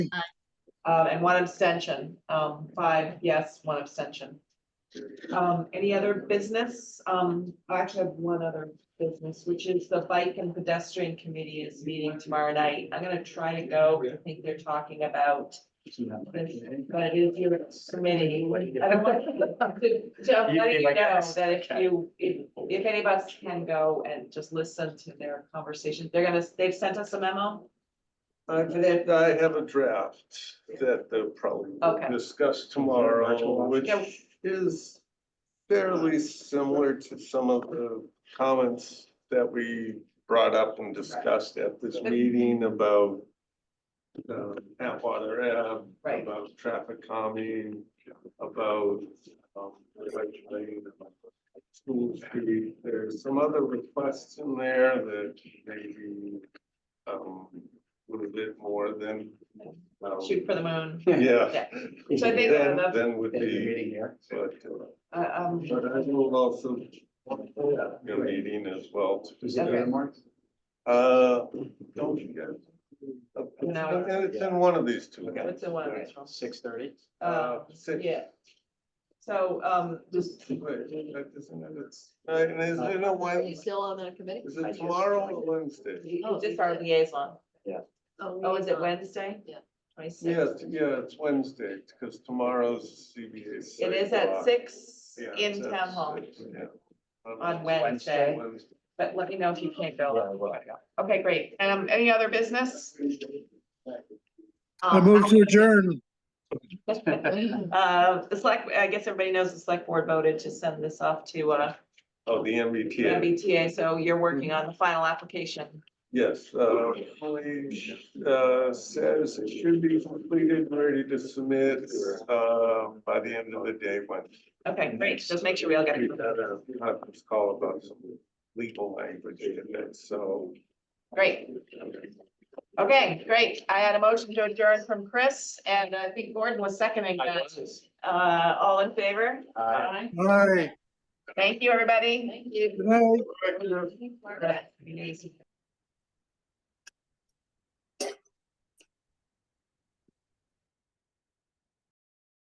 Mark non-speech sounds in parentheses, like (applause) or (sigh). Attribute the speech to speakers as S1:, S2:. S1: Uh, and one abstention, um, five yes, one abstention. Um, any other business? Um, I actually have one other business, which is the bike and pedestrian committee is meeting tomorrow night. I'm gonna try to go. I think they're talking about this, but it is your committee. I don't want- So I'm letting you know that if you, if, if any of us can go and just listen to their conversation, they're gonna, they've sent us a memo.
S2: I think I have a draft that they'll probably
S1: Okay.
S2: discuss tomorrow, which
S1: Yeah.
S2: is fairly similar to some of the comments that we brought up and discussed at this meeting about um, Atwater Ave,
S1: Right.
S2: about traffic calming, about um, regulating, about school street. There's some other requests in there that maybe um, a little bit more than um,
S1: Shoot for the moon.
S2: yeah.
S1: So I think
S2: Then,
S1: that's-
S2: then would be,
S3: Meeting here.
S2: but, uh,
S1: Uh, um,
S2: but I will also be
S3: Great.
S2: meeting as well.
S3: Is it
S1: Okay.
S3: Mark?
S2: Uh, don't you guys? Uh,
S1: No.
S2: It's in one of these two.
S3: Okay.
S1: what's the one? that's wrong?
S3: Six thirty?
S1: Uh,
S2: Uh, six.
S1: yeah. So, um, just,
S2: Wait, that isn't it? It's- uh, and is it a
S4: Are you
S2: Wednesday?
S4: still on that committee? Oh,
S2: Is
S3: I
S2: it
S3: just-
S2: tomorrow or Wednesday?
S1: you just our liaison. Oh, is it
S4: when?
S1: Wednesday?
S4: Yeah.
S2: Yes,
S1: Twenty-six.
S2: yeah, it's Wednesday, because tomorrow's CBA.
S1: It
S2: site
S1: is at
S2: walk.
S1: six
S2: Yeah, it's
S1: in
S2: at
S1: town hall
S2: six, yeah.
S1: on Wednesday,
S2: Wednesday.
S1: but let me know if you can't go.
S3: well,
S1: Okay, great. Um, any other business?
S4: Oh,
S5: I move
S4: (laughs)
S5: to adjourn.
S1: Uh, the select, I guess everybody knows the select board voted to send this off to, uh,
S2: Oh, the MBTA.
S1: E MBTA, so you're working
S2: Mm-hmm.
S1: on the final application.
S2: Yes, uh, Holly, uh, says it should be completed, and ready to submit, uh, by the end of the day, when.
S1: Okay, great. Just make sure we all get
S2: We
S1: it.
S2: had a conference call about some legal language in it, so.
S1: Great. Okay, great. I had a motion to adjourn from Chris and I think Gordon was seconding that. Uh, all in favor?
S3: Uh,
S1: Aye.
S5: All right.
S1: Thank you, everybody.
S5: Good night.
S1: Thank you.